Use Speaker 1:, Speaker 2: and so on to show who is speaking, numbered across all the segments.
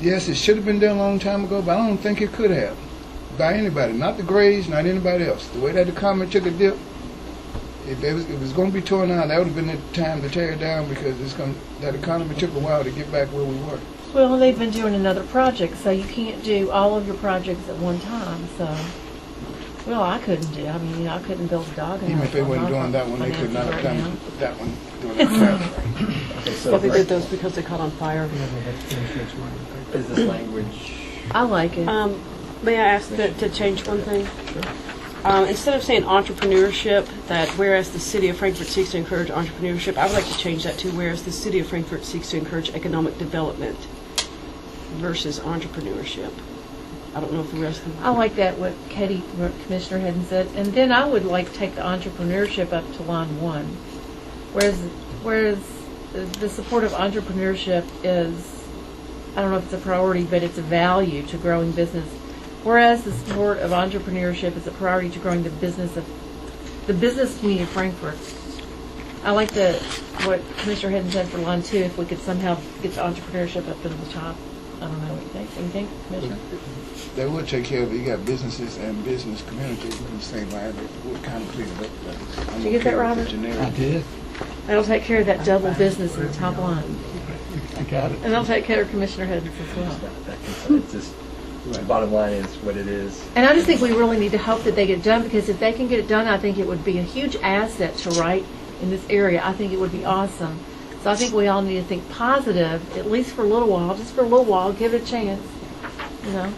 Speaker 1: Yes, it should have been done a long time ago, but I don't think it could have by anybody, not the Grays, not anybody else. The way that the comet took a dip, if it was, if it was going to be torn down, that would have been the time to tear it down because it's going that economy took a while to get back where we were.
Speaker 2: Well, they've been doing another project, so you can't do all of your projects at one time, so. Well, I couldn't do, I mean, I couldn't build a dog.
Speaker 1: Even if they weren't doing that one, they could not have done that one during that time.
Speaker 3: Okay, so
Speaker 4: Well, they did those because they caught on fire.
Speaker 3: is this language,
Speaker 2: I like it.
Speaker 4: Um, may I ask that to change one thing? Um, instead of saying entrepreneurship, that whereas the city of Frankfurt seeks to encourage entrepreneurship, I would like to change that to whereas the city of Frankfurt seeks to encourage economic development versus entrepreneurship. I don't know if the rest of
Speaker 2: I like that, what Katie, what Commissioner hadn't said. And then I would like take the entrepreneurship up to line one. Whereas, whereas the- the support of entrepreneurship is, I don't know if it's a priority, but it's a value to growing business. Whereas the support of entrepreneurship is a priority to growing the business of, the business community of Frankfurt. I like the, what Commissioner hadn't said for line two, if we could somehow get the entrepreneurship up to the top. I don't know what you think. You think, Commissioner?
Speaker 1: They would take care of it. You got businesses and business communities in the same line. They would kind of clean it up. but I'm
Speaker 2: Did
Speaker 1: okay
Speaker 2: you get that,
Speaker 1: with the
Speaker 2: Robert?
Speaker 1: generic.
Speaker 5: I did.
Speaker 2: That'll take care of that double business in the top line.
Speaker 5: I got it.
Speaker 2: And that'll take care of Commissioner Hedges as well.
Speaker 3: that concern, it's just, the bottom line is what it is.
Speaker 2: And I just think we really need to hope that they get it done, because if they can get it done, I think it would be a huge asset to Wright in this area. I think it would be awesome. So I think we all need to think positive, at least for a little while, just for a little while, give it a chance, you know?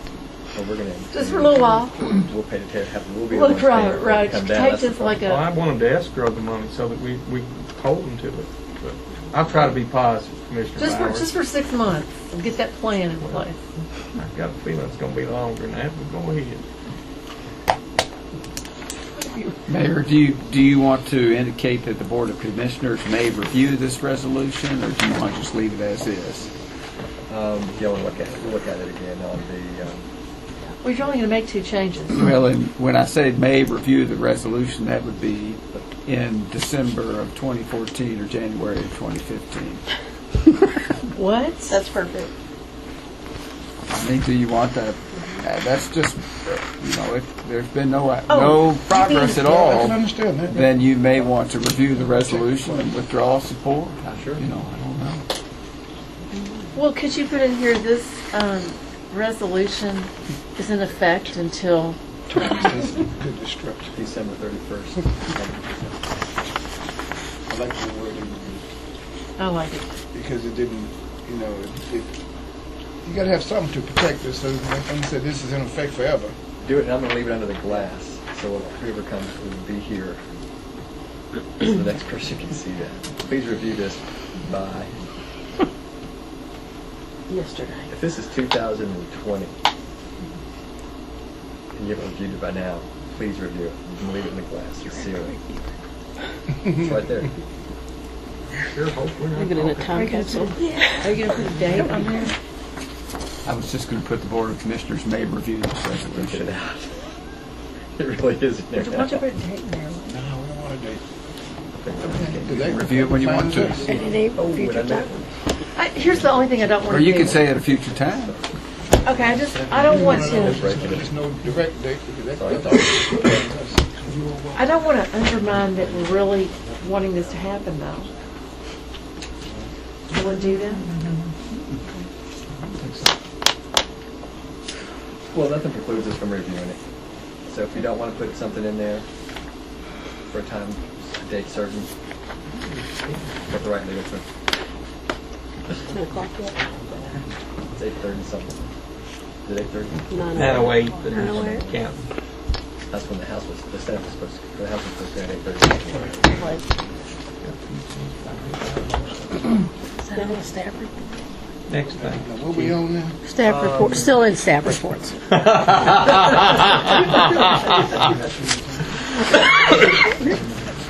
Speaker 3: Well, we're gonna.
Speaker 2: Just for a little while.
Speaker 3: We'll pay the tariff, have- we'll be. the
Speaker 2: Look,
Speaker 3: ones paying
Speaker 2: right,
Speaker 3: for it to
Speaker 2: right.
Speaker 3: come
Speaker 2: Take
Speaker 3: down, that's the
Speaker 2: this like
Speaker 3: problem.
Speaker 2: a-
Speaker 6: Well, I want them to escrow the money so that we, we hold them to it. But I'll try to be positive, Commissioner
Speaker 2: Just for, just
Speaker 6: Bowers.
Speaker 2: for six months, and get that plan in place.
Speaker 6: I've got a feeling it's gonna be longer than that, but go ahead.
Speaker 5: Mayor, do you, do you want to indicate that the Board of Commissioners may review this resolution, or do you want to just leave it as is?
Speaker 3: Um, yeah, we'll look at, it. we'll look at it again on the, um,
Speaker 2: We're only gonna make two changes.
Speaker 5: Well, and when I say may review the resolution, that would be in December of 2014 or January of 2015.
Speaker 2: What?
Speaker 7: That's perfect.
Speaker 5: I mean, do you want that? uh, That's just, you know, if there's been no,
Speaker 2: Oh,
Speaker 5: no progress at all.
Speaker 1: I can understand that.
Speaker 5: then you may want to review the resolution and withdraw support.
Speaker 3: Sure.
Speaker 5: You know, I don't know.
Speaker 2: Well, could you put in here, this um, resolution is in effect until,
Speaker 1: Good destruction.
Speaker 3: December thirty-first. Well,
Speaker 1: I like the word you used.
Speaker 2: I like it.
Speaker 1: because it didn't, you know, it, it, you got to have something to protect us. So like I said, this is in effect forever.
Speaker 3: Do it, and I'm gonna leave it under the glass, so whoever comes will be here. So the next person can see that. Please review this by,
Speaker 4: yesterday.
Speaker 3: if this is two thousand and twenty, and you haven't reviewed it by now, please review it, You can leave it in the glass, you see it. It's right there.
Speaker 6: Sure hope we're not.
Speaker 4: Leave it in a
Speaker 6: talking.
Speaker 4: time capsule.
Speaker 2: Are you going to put a date on there?
Speaker 5: I was just going to put the Board of Commissioners may review this
Speaker 3: Get it
Speaker 5: resolution.
Speaker 3: out. It really is in there
Speaker 2: Why don't you
Speaker 3: now.
Speaker 2: put a date in there?
Speaker 1: No, we don't want to date.
Speaker 3: Okay.
Speaker 5: Review it when you want to.
Speaker 7: And it ain't
Speaker 3: Oh,
Speaker 7: future
Speaker 3: what I meant,
Speaker 7: time.
Speaker 2: I- Here's the only thing I don't want
Speaker 5: Or
Speaker 2: to do.
Speaker 5: you could say at a future time.
Speaker 2: Okay, I just, I don't want to,
Speaker 1: There's no direct date because
Speaker 3: Sorry.
Speaker 1: that, that's
Speaker 2: I don't want to undermine that we're really wanting this to happen, though. Will it do that?
Speaker 3: well, nothing precludes us from reviewing it. So if you don't want to put something in there for a time, a date certain,
Speaker 6: Mm-hmm.
Speaker 3: put the right legal term.
Speaker 4: Ten o'clock yet?
Speaker 3: It's eight thirty something. Is it eight thirty?
Speaker 4: Nine
Speaker 6: That'll
Speaker 4: o'clock.
Speaker 6: wait, but
Speaker 2: oh
Speaker 6: it's counting.
Speaker 3: That's when the house was, the Senate was supposed to, the house was supposed to be at eight thirty.
Speaker 7: Still in staff report.
Speaker 6: Next thing.
Speaker 1: now, what we on now?
Speaker 7: Staff report, still in staff reports.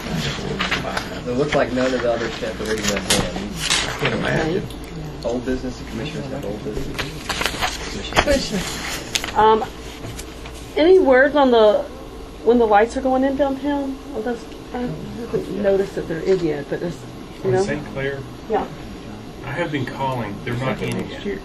Speaker 3: It looked like none of the others had the reading of them.
Speaker 6: I can imagine.
Speaker 3: Old business, the commissioners have old business.
Speaker 4: Um, any word on the, when the lights are going in downtown? Well, that's, I haven't noticed that there is yet, but it's, you know,
Speaker 8: St. Clair,
Speaker 4: oh yeah.
Speaker 8: I have been calling, they're not in yet.